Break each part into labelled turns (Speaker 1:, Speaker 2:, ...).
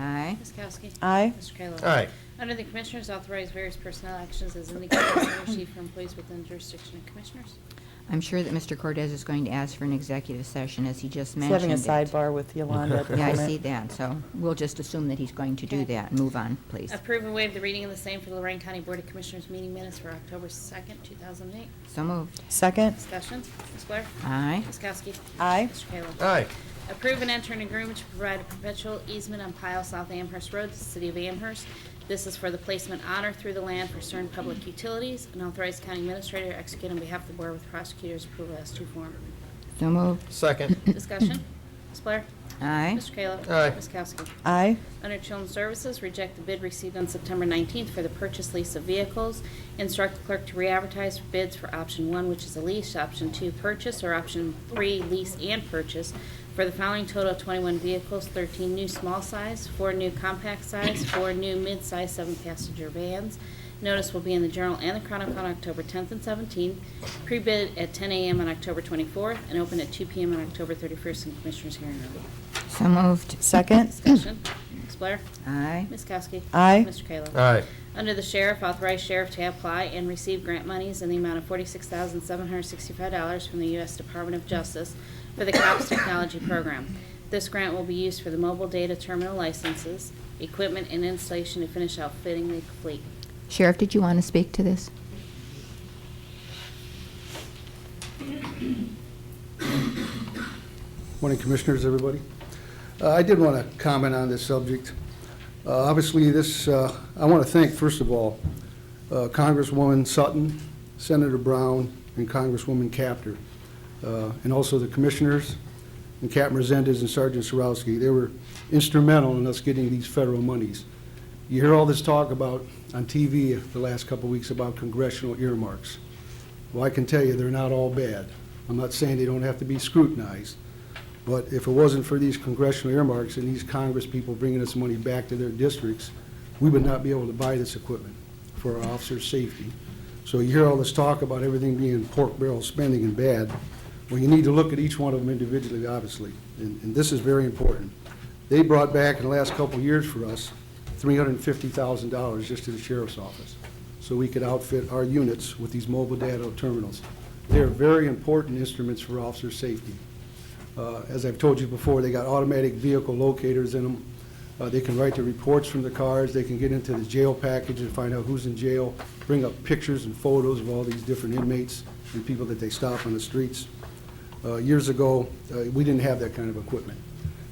Speaker 1: Aye.
Speaker 2: Ms. Kowski.
Speaker 3: Aye.
Speaker 2: Mr. Kayla.
Speaker 4: Aye.
Speaker 2: Under the Commissioners, authorize various personnel actions as indicated by the Chief for employees within jurisdiction of Commissioners.
Speaker 1: I'm sure that Mr. Cordez is going to ask for an executive session, as he just
Speaker 3: He's
Speaker 1: mentioned.
Speaker 3: having a
Speaker 1: it.
Speaker 3: sidebar with Yolanda at the
Speaker 1: Yeah, I
Speaker 3: moment.
Speaker 1: see that, so we'll just assume that he's going to do
Speaker 2: Okay.
Speaker 1: that. Move on, please.
Speaker 2: Approve and waive the reading of the same for the Lorraine County Board of Commissioners meeting minutes for October 2nd, 2008.
Speaker 1: So moved.
Speaker 3: Second?
Speaker 2: Discussion, Ms. Blair?
Speaker 1: Aye.
Speaker 2: Ms. Kowski?
Speaker 3: Aye.
Speaker 2: Mr. Kayla?
Speaker 4: Aye.
Speaker 2: Approve and enter an agreement to provide a perpetual easement on Pile South Amherst Road to the City of Amherst. This is for the placement on or through the land for certain public utilities, and authorize county administrator to execute on behalf of the Board with prosecutor's approval as to form.
Speaker 1: So moved.
Speaker 4: Second.
Speaker 2: Discussion, Ms. Blair?
Speaker 1: Aye.
Speaker 2: Mr. Kayla?
Speaker 4: Aye.
Speaker 2: Ms. Kowski?
Speaker 3: Aye.
Speaker 2: Under Children's Services, reject the bid received on September 19th for the purchase lease of vehicles. Instruct the clerk to re-advertise for bids for option one, which is a lease, option two, purchase, or option three, lease and purchase, for the following total of 21 vehicles, 13 new small size, four new compact size, four new mid-size seven-passenger vans. Notice will be in the Journal and the Chronicle on October 10th and 17th, pre-bid at 10 a.m. on October 24th, and open at 2 p.m. on October 31st in Commissioners' hearing room.
Speaker 1: So moved.
Speaker 3: Second?
Speaker 2: Discussion. Ms. Blair?
Speaker 1: Aye.
Speaker 2: Ms. Kowski?
Speaker 3: Aye.
Speaker 2: Mr. Kayla?
Speaker 4: Aye.
Speaker 2: Under the Sheriff, authorize Sheriff to apply and receive grant monies in the amount of $46,765 from the U.S. Department of Justice for the COPS Technology Program. This grant will be used for the mobile data terminal licenses, equipment, and installation to finish outfitting the fleet.
Speaker 1: Sheriff, did you want to speak to this?
Speaker 5: Morning Commissioners, everybody. Uh, I did want to comment on this subject. Uh, Obviously, this, uh, I want to thank, first of all, uh, Congresswoman Sutton, Senator Brown, and Congresswoman Capter, uh, and also the Commissioners, and Captain Resendez and Sergeant Sarowski. They were instrumental in us getting these federal monies. You hear all this talk about, on TV the last couple of weeks, about congressional earmarks. Well, I can tell you, they're not all bad. I'm not saying they don't have to be scrutinized, but if it wasn't for these congressional earmarks and these Congress people bringing us money back to their districts, we would not be able to buy this equipment for our officers' safety. So you hear all this talk about everything being pork barrel spending and bad. Well, you need to look at each one of them individually, obviously, and, and this is very important. They brought back in the last couple of years for us, three hundred and fifty thousand dollars just to the sheriff's office, so we could outfit our units with these mobile data terminals. They're very important instruments for officer safety. Uh, As I've told you before, they got automatic vehicle locators in them. Uh, They can write the reports from the cars, they can get into the jail package and find out who's in jail, bring up pictures and photos of all these different inmates and people that they stop on the streets. Uh, Years ago, uh, we didn't have that kind of equipment.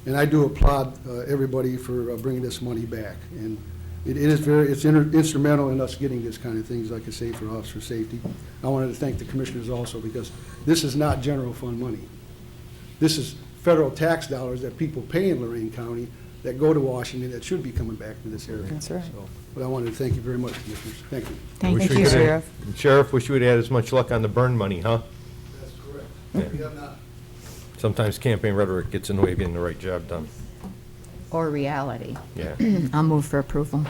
Speaker 5: And I do applaud uh, everybody for uh, bringing this money back. And it it is very, it's inter- instrumental in us getting this kind of things, like I say, for officer safety. I wanted to thank the commissioners also, because this is not general fund money. This is federal tax dollars that people pay in Lorraine County that go to Washington that should be coming back to this area.
Speaker 3: That's right.
Speaker 5: So, But I wanted to thank you very much, commissioners. Thank you.
Speaker 1: Thank
Speaker 4: Wish
Speaker 1: you.
Speaker 4: we
Speaker 3: you,
Speaker 4: could have-
Speaker 3: Sheriff.
Speaker 4: Sheriff, wish you would have had as much luck on the burn money, huh?
Speaker 5: That's correct. We have not
Speaker 4: Sometimes campaign rhetoric gets in the way of getting the right job done.
Speaker 1: Or reality.
Speaker 4: Yeah.
Speaker 1: I'll move for approval.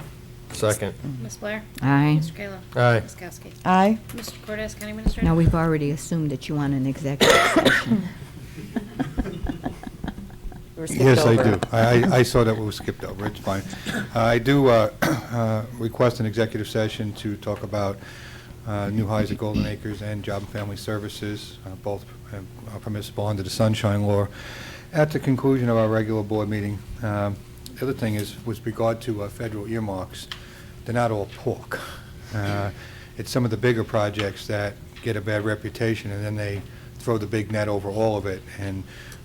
Speaker 4: Second.
Speaker 2: Ms. Blair?
Speaker 1: Mm-hmm. Aye.
Speaker 2: Mr. Kayla?
Speaker 4: Aye.
Speaker 2: Ms. Kowski?
Speaker 3: Aye.
Speaker 2: Mr. Cortez, County Administrator?
Speaker 1: Now, we've already assumed that you want an executive session.
Speaker 3: We were skipped
Speaker 6: Yes, I
Speaker 3: over.
Speaker 6: do. I, I- I saw that we skipped over, it's fine. I do uh, uh, request an executive session to talk about uh, new highs at Golden Acres and Job and Family Services, uh, both uh, are permissible under the Sunshine Law, at the conclusion of our regular board meeting. Um, The other thing is, with regard to uh, federal earmarks, they're not all pork. Uh, It's some of the bigger projects that get a bad reputation, and then they throw the big net over all of it, and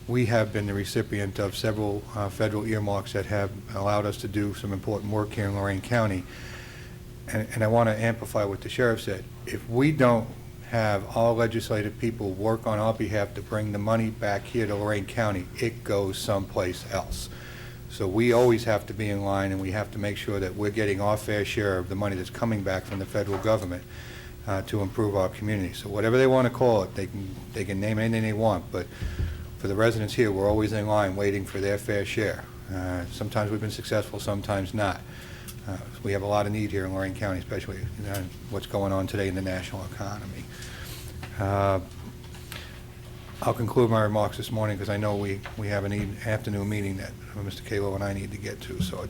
Speaker 6: we have been the recipient of several uh, federal earmarks that have allowed us to do some important work here in Lorraine County. And and I want to amplify what the sheriff said. If we don't have all legislative people work on our behalf to bring the money back here to Lorraine County, it goes someplace else. So we always have to be in line, and we have to make sure that we're getting our fair share of the money that's coming back from the federal government uh, to improve our community. So whatever they want to call it, they can, they can name anything they want, but for the residents here, we're always in line waiting for their fair share. Uh, Sometimes we've been successful, sometimes not. Uh, We have a lot of need here in Lorraine County, especially you know, what's going on today in the national economy. Uh, I'll conclude e-, my remarks this morning because I know we, we have an eve- afternoon meeting that uh, Mr. Kalo and I need to get to, so I